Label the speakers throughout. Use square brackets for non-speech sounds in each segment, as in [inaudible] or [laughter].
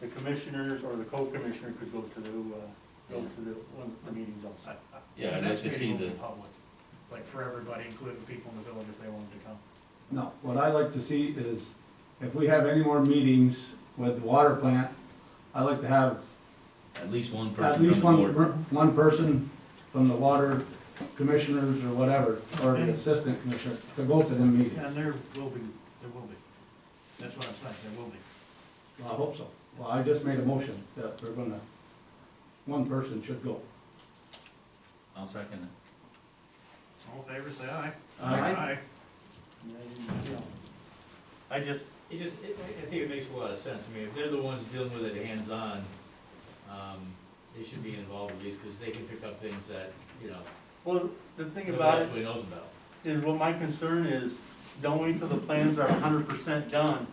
Speaker 1: the commissioners or the co-commissioner could go to the, uh, go to the, one of the meetings
Speaker 2: I- I-
Speaker 1: also.
Speaker 3: Yeah,
Speaker 2: the
Speaker 3: I'd
Speaker 2: next
Speaker 3: like to see
Speaker 2: meeting will
Speaker 3: the-
Speaker 2: be public, Like for everybody, including people in the village if they wanted to come.
Speaker 4: No, what I like to see is, if we have any more meetings with the water plant, I like to have
Speaker 3: At least one person
Speaker 4: at
Speaker 3: from the
Speaker 4: least one,
Speaker 3: board.
Speaker 4: one person from the water commissioners or whatever, or the assistant commissioner, to go to the meeting.
Speaker 2: And there will be, there will be. That's what I'm saying, there will be.
Speaker 4: Well, I hope so. Well, I just made a motion that we're gonna, one person should go.
Speaker 3: I'll second it.
Speaker 2: All in favor, say aye.
Speaker 4: Aye.
Speaker 1: And then, you know, I just,
Speaker 5: It just, it, I- I think it makes a lot of sense, I mean, if they're the ones dealing with it hands-on, um, they should be involved at least, because they can pick up things that, you know,
Speaker 1: well, the thing
Speaker 5: nobody
Speaker 1: about it
Speaker 5: else really knows about.
Speaker 1: is what my concern is, don't wait till the plans are hundred percent done.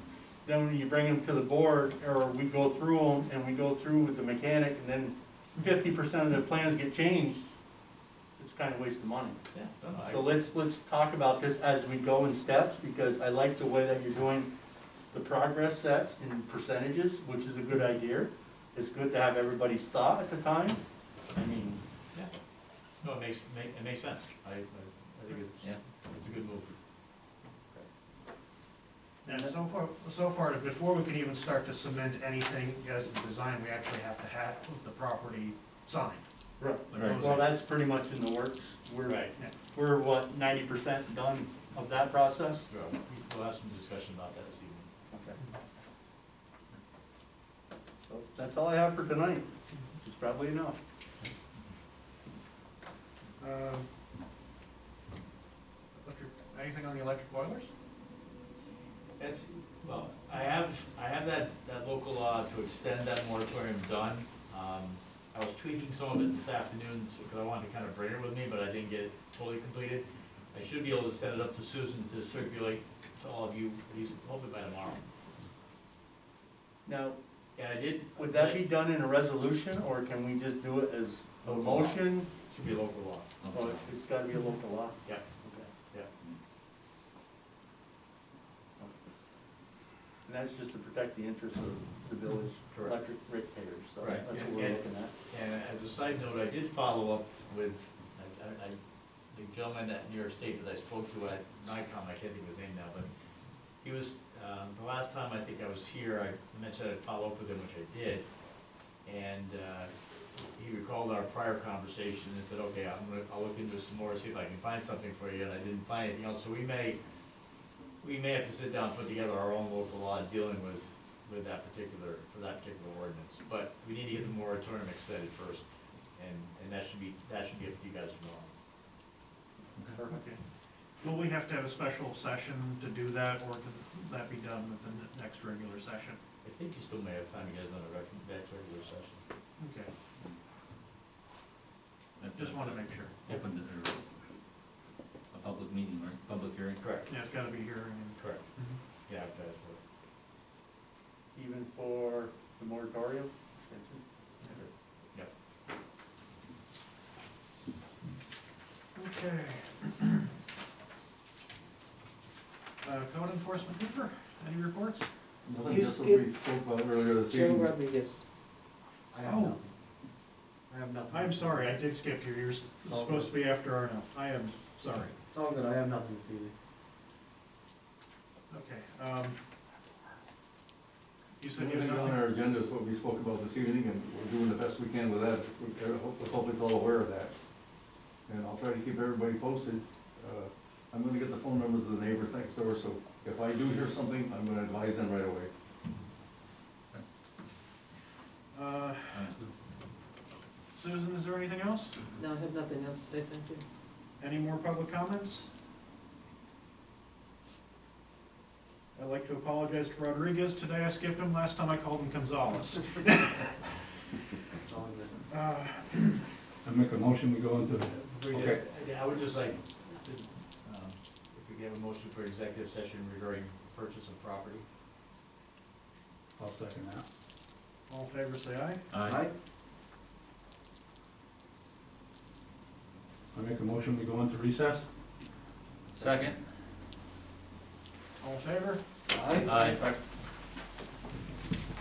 Speaker 1: Then when you bring them to the board, or we go through them, and we go through with the mechanic, and then fifty percent of the plans get changed, it's kind of waste of money.
Speaker 5: Yeah, no, no, I-
Speaker 1: So let's, let's talk about this as we go in steps, because I like the way that you're doing the progress sets in percentages, which is a good idea. It's good to have everybody's thought at the time. I mean,
Speaker 5: yeah. No, it makes, make, it makes sense, I, I, I think it's,
Speaker 3: Yeah.
Speaker 5: it's a good move.
Speaker 2: And so far, so far, before we can even start to cement anything as the design, we actually have to have the property signed.
Speaker 1: right,
Speaker 2: The
Speaker 3: Right.
Speaker 1: well,
Speaker 2: closing.
Speaker 1: that's pretty much in the works. We're, we're what, ninety percent done of that process?
Speaker 5: Sure. We'll have some discussion about that this evening.
Speaker 1: Okay. So that's all I have for tonight, which is probably enough.
Speaker 2: Um, electric- Anything on the electric boilers?
Speaker 5: That's, well, I have, I have that, that local law to extend that moratorium done. Um, I was tweaking some of it this afternoon, because I wanted to kind of bring it with me, but I didn't get it totally completed. I should be able to send it up to Susan to circulate to all of you, at least hopefully by tomorrow.
Speaker 1: Now,
Speaker 5: And I did.
Speaker 1: would that be done in a resolution, or can we just do it as a motion?
Speaker 5: Should be local law.
Speaker 1: Oh, it's gotta be a local law?
Speaker 5: Yeah.
Speaker 1: Okay.
Speaker 5: Yeah.
Speaker 1: And that's just to protect the interests of the village
Speaker 5: Correct.
Speaker 1: electric ratepayers, so
Speaker 5: Right.
Speaker 1: that's what we're
Speaker 5: Yeah.
Speaker 1: looking at.
Speaker 5: And as a side note, I did follow up with, I, I, I- the gentleman at New York State that I spoke to at NICOM, I can't think of his name now, but he was, um, the last time I think I was here, I mentioned I'd follow up with him, which I did. And, uh, he recalled our prior conversation and said, okay, I'm gonna, I'll look into it some more, see if I can find something for you, and I didn't find anything else, so we may, we may have to sit down, and put together our own local law dealing with, with that particular, for that particular ordinance. But we need to get the moratorium extended first, and, and that should be, that should be up to you guys tomorrow.
Speaker 1: Perfect.
Speaker 2: Okay. Will we have to have a special session to do that, or can that be done at the n- next regular session?
Speaker 5: I think you still may have time to get another rec, next regular session.
Speaker 2: Okay, just want to make sure.
Speaker 3: Open to, or a public meeting, right, public hearing?
Speaker 5: Correct.
Speaker 2: Yeah, it's got to be here. and-
Speaker 5: Correct. Yeah, I've asked for it.
Speaker 1: Even for the moratorium extension?
Speaker 2: Mm-hmm. Okay. [clears throat] Uh, Code enforcement Cooper, any reports?
Speaker 6: You skipped Joe Rodriguez.
Speaker 2: I have nothing.
Speaker 6: I have nothing.
Speaker 2: Oh, I'm sorry, I did skip you. You're s-
Speaker 6: all
Speaker 2: supposed to be after Arno. I am sorry.
Speaker 6: It's all good, I have nothing this evening.
Speaker 2: Okay. um, You said you had
Speaker 7: Everything on
Speaker 2: nothing.
Speaker 7: our agenda is what we spoke about this evening, and we're doing the best we can with that. We- I hope the public's all aware of that. And I'll try to keep everybody posted. Uh, I'm gonna get the phone numbers of the neighbors next door, so if I do hear something, I'm gonna advise them right away.
Speaker 2: Uh,
Speaker 3: Sounds good.
Speaker 2: Susan, is there anything else?
Speaker 6: No, I have nothing else today, thank you.
Speaker 2: Any more public comments? I'd like to apologize to Rodriguez. Today I skipped him. Last time I called him Gonzalez.
Speaker 6: It's all good.
Speaker 2: Uh,
Speaker 4: I make a motion, we go into,
Speaker 5: We did-
Speaker 4: Okay.
Speaker 5: I- I would just like, to, um, if we could have a motion for executive session regarding purchase of property.
Speaker 4: I'll second that.
Speaker 2: All in favor, say aye.
Speaker 3: Aye.
Speaker 4: I make a motion, we go into recess?
Speaker 3: Second?
Speaker 2: All in favor?
Speaker 6: Aye.
Speaker 3: Aye.